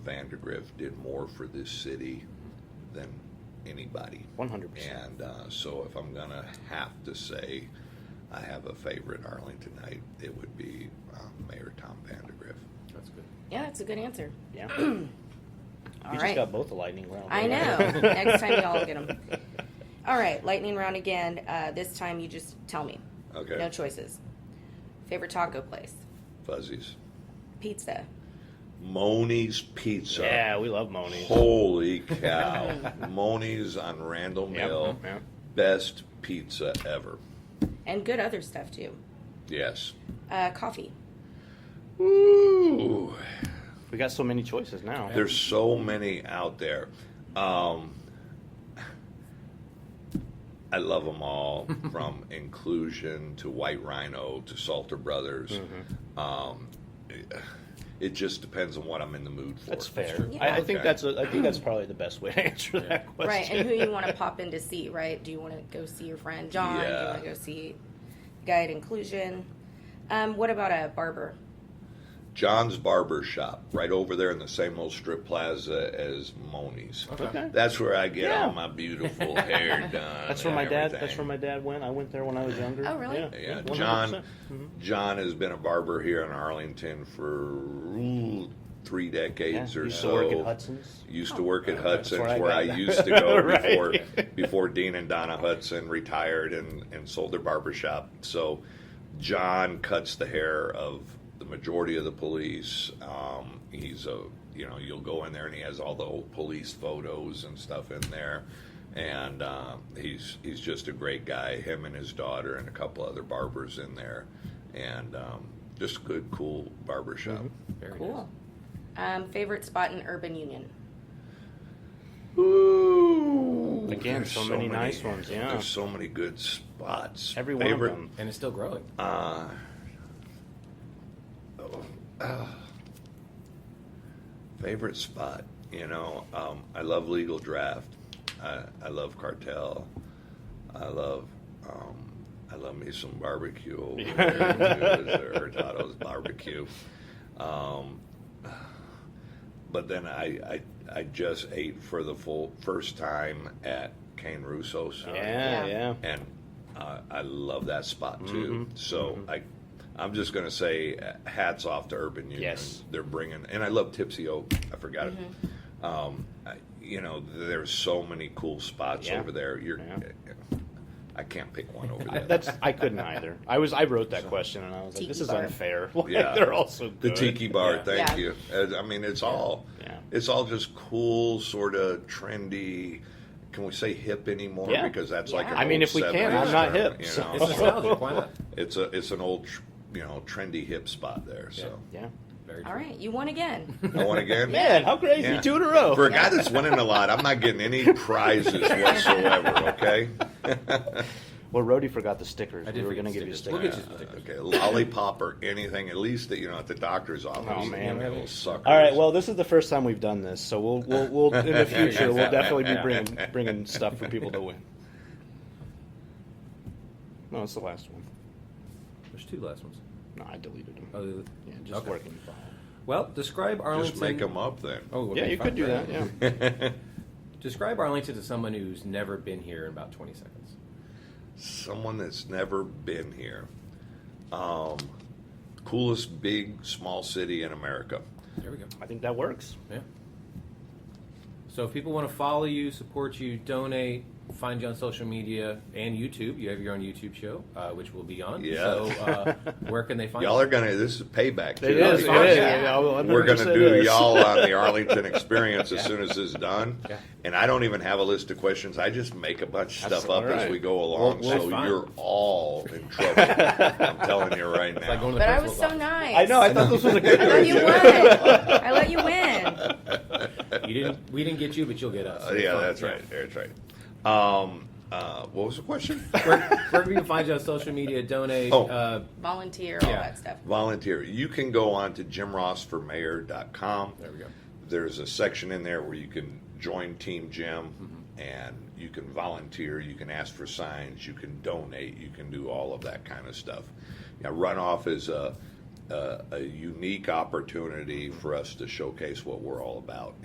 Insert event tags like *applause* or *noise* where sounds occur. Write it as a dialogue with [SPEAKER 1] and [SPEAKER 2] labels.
[SPEAKER 1] Vandergriff did more for this city than anybody.
[SPEAKER 2] One hundred percent.
[SPEAKER 1] And uh, so, if I'm gonna have to say I have a favorite Arlingtonite, it would be um, Mayor Tom Vandergriff.
[SPEAKER 3] That's good.
[SPEAKER 4] Yeah, that's a good answer.
[SPEAKER 2] Yeah.
[SPEAKER 4] *clears throat* All
[SPEAKER 2] you just got
[SPEAKER 4] right.
[SPEAKER 2] both the lightning round. *laughs*
[SPEAKER 4] I
[SPEAKER 2] right?
[SPEAKER 4] know. *laughs* Next time y'all get
[SPEAKER 2] *laughs*
[SPEAKER 4] them. All right, lightning round again. Uh, this time you just tell me.
[SPEAKER 1] Okay,
[SPEAKER 4] No choices. Favorite taco place?
[SPEAKER 1] fuzzies.
[SPEAKER 4] Pizza.
[SPEAKER 1] Moni's Pizza.
[SPEAKER 2] Yeah, we love Moni. *laughs*
[SPEAKER 1] Holy cow! Moni's on Randall
[SPEAKER 2] Yep,
[SPEAKER 1] Mill,
[SPEAKER 2] yep.
[SPEAKER 1] best pizza ever.
[SPEAKER 4] And good other stuff too.
[SPEAKER 1] Yes.
[SPEAKER 4] Uh, coffee.
[SPEAKER 1] Ooh.
[SPEAKER 2] We got so many choices now.
[SPEAKER 1] There's so many out there. Um, I love them
[SPEAKER 2] *laughs*
[SPEAKER 1] all, from Inclusion to White Rhino to Salter Brothers.
[SPEAKER 2] Mm-hmm.
[SPEAKER 1] Um, it, it just depends on what I'm in the mood for.
[SPEAKER 2] that's fair.
[SPEAKER 4] Yeah.
[SPEAKER 2] I, I think
[SPEAKER 1] Okay.
[SPEAKER 2] that's a, I think that's probably the best way to *laughs* answer that question.
[SPEAKER 4] Right, and who you want to pop in to see, right? Do you want to go see your friend John? Do you
[SPEAKER 1] Yeah.
[SPEAKER 4] want to go see Guide Inclusion? Um, what about a barber?
[SPEAKER 1] John's Barber Shop, right over there in the same old strip plaza as Moni's.
[SPEAKER 2] Okay.
[SPEAKER 1] That's where I get
[SPEAKER 2] Yeah.
[SPEAKER 1] all my beautiful
[SPEAKER 2] *laughs*
[SPEAKER 1] hair done.
[SPEAKER 2] *laughs* That's where
[SPEAKER 1] and
[SPEAKER 2] my dad. That's
[SPEAKER 1] everything.
[SPEAKER 2] where my dad went. I went there when I was younger.
[SPEAKER 4] Oh, really?
[SPEAKER 2] Yeah.
[SPEAKER 1] Yeah,
[SPEAKER 2] 100%.
[SPEAKER 1] John.
[SPEAKER 2] Mm-hmm.
[SPEAKER 1] John has been a barber here in Arlington for ooh, three
[SPEAKER 2] Yeah,
[SPEAKER 1] decades or
[SPEAKER 2] used to
[SPEAKER 1] so.
[SPEAKER 2] work at Hudson's.
[SPEAKER 1] Used to work at
[SPEAKER 2] That's
[SPEAKER 1] Hudson's,
[SPEAKER 2] where I
[SPEAKER 1] where
[SPEAKER 2] got
[SPEAKER 1] I
[SPEAKER 2] that.
[SPEAKER 1] used to go
[SPEAKER 2] *laughs* Right.
[SPEAKER 1] before before Dean and Donna Hudson retired and, and sold their barber shop. So John cuts the hair of the majority of the police. Um, he's a you know you'll go in there and he has all the old police photos and stuff in there. And um, he's he's just a great guy. Him and his daughter and a couple other barbers in there, and um, just a good, cool barber shop.
[SPEAKER 2] Mm-hmm.
[SPEAKER 3] Very
[SPEAKER 4] Cool. Um, favorite spot in Urban Union?
[SPEAKER 1] Ooh,
[SPEAKER 2] Again,
[SPEAKER 1] there's
[SPEAKER 2] so many nice ones, yeah.
[SPEAKER 1] there's so many good spots.
[SPEAKER 2] Every one
[SPEAKER 1] Favorite,
[SPEAKER 2] of them.
[SPEAKER 3] nice. And it's
[SPEAKER 2] *laughs*
[SPEAKER 3] still growing.
[SPEAKER 1] Uh, oh, favorite spot, you know. Um, I love legal draft. I, I love cartel. I love. Um, I love me some barbecue. over
[SPEAKER 2] *laughs*
[SPEAKER 1] there, too, is Hurtado's barbecue. Um, but then I, I I just ate for the full first time at Cane Russo's
[SPEAKER 2] Yeah,
[SPEAKER 4] Yeah.
[SPEAKER 2] yeah.
[SPEAKER 1] and uh, I love that spot too.
[SPEAKER 2] Mm-hmm.
[SPEAKER 1] So I, I'm just gonna say uh, hats off to Urban Union.
[SPEAKER 2] Yes.
[SPEAKER 1] they're bringing, and I love Tipsy Oak. I forgot
[SPEAKER 2] Mm-hmm.
[SPEAKER 1] it. Um, I, you know, there's so many cool spots
[SPEAKER 2] Yeah.
[SPEAKER 1] over there. You're, uh,
[SPEAKER 2] Yeah.
[SPEAKER 1] I can't pick one
[SPEAKER 2] *laughs*
[SPEAKER 1] over
[SPEAKER 2] I,
[SPEAKER 1] there.
[SPEAKER 2] that's I couldn't either. I was I wrote that question and I was like,
[SPEAKER 4] Tiki
[SPEAKER 2] this is
[SPEAKER 4] bar.
[SPEAKER 2] unfair. *laughs* Like,
[SPEAKER 1] Yeah.
[SPEAKER 2] they're all so
[SPEAKER 1] the
[SPEAKER 2] good.
[SPEAKER 1] Tiki Bar.
[SPEAKER 2] Yeah.
[SPEAKER 1] Thank
[SPEAKER 4] Yeah.
[SPEAKER 1] you. Uh, I mean, it's all,
[SPEAKER 2] Yeah.
[SPEAKER 1] it's all just cool, sort of trendy. Can we say hip anymore?
[SPEAKER 2] Yeah.
[SPEAKER 1] Because that's like
[SPEAKER 4] Yeah.
[SPEAKER 1] an
[SPEAKER 2] I mean,
[SPEAKER 1] old
[SPEAKER 2] if we can,
[SPEAKER 1] 70s
[SPEAKER 2] I'm not
[SPEAKER 1] term,
[SPEAKER 2] hip,
[SPEAKER 1] you
[SPEAKER 2] so-
[SPEAKER 1] know?
[SPEAKER 3] It's nostalgic. Why not?
[SPEAKER 1] It's a it's an old, tr- you know, trendy hip spot there. So
[SPEAKER 2] Yeah.
[SPEAKER 3] Very
[SPEAKER 4] All
[SPEAKER 3] true.
[SPEAKER 4] right, you won
[SPEAKER 2] *laughs*
[SPEAKER 4] again.
[SPEAKER 1] I won again.
[SPEAKER 2] Man, how crazy!
[SPEAKER 1] Yeah.
[SPEAKER 2] Two in a row.
[SPEAKER 1] For a guy that's winning a lot, I'm not getting any
[SPEAKER 2] *laughs*
[SPEAKER 1] prizes whatsoever. Okay.
[SPEAKER 2] well, Rody forgot the stickers.
[SPEAKER 3] I did
[SPEAKER 2] we were
[SPEAKER 3] forget
[SPEAKER 2] gonna
[SPEAKER 3] the
[SPEAKER 2] give you
[SPEAKER 3] stickers.
[SPEAKER 2] stickers.
[SPEAKER 3] We'll get you
[SPEAKER 1] Uh,
[SPEAKER 3] some stickers.
[SPEAKER 1] okay. Lollipop or anything, at least that you know at the doctor's office.
[SPEAKER 2] Oh,
[SPEAKER 1] you
[SPEAKER 2] man.
[SPEAKER 1] Little suckers.
[SPEAKER 2] All right. Well, this is the first time we've done this, so we'll we'll, we'll in the future
[SPEAKER 1] *laughs*
[SPEAKER 2] we'll definitely be bringing bringing stuff for people to win. No, it's the last one.
[SPEAKER 3] There's two last ones.
[SPEAKER 2] No, I deleted them.
[SPEAKER 3] Oh, the-
[SPEAKER 2] yeah, just
[SPEAKER 3] okay.
[SPEAKER 2] working fine.
[SPEAKER 3] Well, describe Arlington.
[SPEAKER 1] just make them up then.
[SPEAKER 3] Oh, okay,
[SPEAKER 2] Yeah, you
[SPEAKER 3] fine,
[SPEAKER 2] could do
[SPEAKER 3] right.
[SPEAKER 2] that. Yeah.
[SPEAKER 1] *laughs*
[SPEAKER 3] Describe Arlington to someone who's never been here in about 20 seconds.
[SPEAKER 1] Someone that's never been here. Um, coolest big small city in America.
[SPEAKER 3] There we go.
[SPEAKER 2] I think that works.
[SPEAKER 3] Yeah. So if people want to follow you, support you, donate, find you on social media and YouTube. You have your own YouTube show, uh, which will be on.
[SPEAKER 1] Yeah.
[SPEAKER 3] So
[SPEAKER 1] *laughs*
[SPEAKER 3] uh, where can they find
[SPEAKER 1] Y'all
[SPEAKER 3] you?
[SPEAKER 1] are gonna. This is payback. too.
[SPEAKER 2] It is. It
[SPEAKER 1] Y'all-
[SPEAKER 2] is.
[SPEAKER 4] Yeah.
[SPEAKER 2] Yeah, well,
[SPEAKER 1] We're going to
[SPEAKER 2] 100%
[SPEAKER 1] do
[SPEAKER 2] is.
[SPEAKER 1] y'all on
[SPEAKER 3] *laughs*
[SPEAKER 1] the Arlington experience as soon as it's done.
[SPEAKER 3] Yeah.
[SPEAKER 1] And I don't even have a list of questions. I just make a bunch of
[SPEAKER 2] That's
[SPEAKER 1] stuff up
[SPEAKER 2] all
[SPEAKER 1] as
[SPEAKER 2] right.
[SPEAKER 1] we go along.
[SPEAKER 3] Well, well,
[SPEAKER 1] so
[SPEAKER 3] fine.
[SPEAKER 1] you're all
[SPEAKER 3] *laughs*
[SPEAKER 1] in trouble. I'm telling you right
[SPEAKER 3] Like going
[SPEAKER 1] now.
[SPEAKER 3] to the
[SPEAKER 4] But I was
[SPEAKER 3] principal's
[SPEAKER 4] so
[SPEAKER 3] office.
[SPEAKER 4] nice.
[SPEAKER 2] I know. I thought this was a good. *laughs*
[SPEAKER 4] I let you win. I let you win.
[SPEAKER 3] You didn't. We didn't get you, but you'll get us.
[SPEAKER 1] Uh, yeah,
[SPEAKER 3] Fine.
[SPEAKER 1] that's right. That's right. Um, uh, what was the question?
[SPEAKER 3] *laughs* Where, where can people find you on social media? Donate.
[SPEAKER 1] Oh.
[SPEAKER 3] Uh,
[SPEAKER 4] Volunteer, all
[SPEAKER 3] Yeah.
[SPEAKER 4] that stuff.
[SPEAKER 1] Volunteer. You can go on to jimrossformayor.com.
[SPEAKER 3] there we go.
[SPEAKER 1] there's a section in there where you can join Team Gym
[SPEAKER 3] Mm-hmm.
[SPEAKER 1] and you can volunteer, you can ask for signs, you can donate, you can do all of that kind of stuff. Now, runoff is a a, a unique opportunity for us to showcase what we're all about.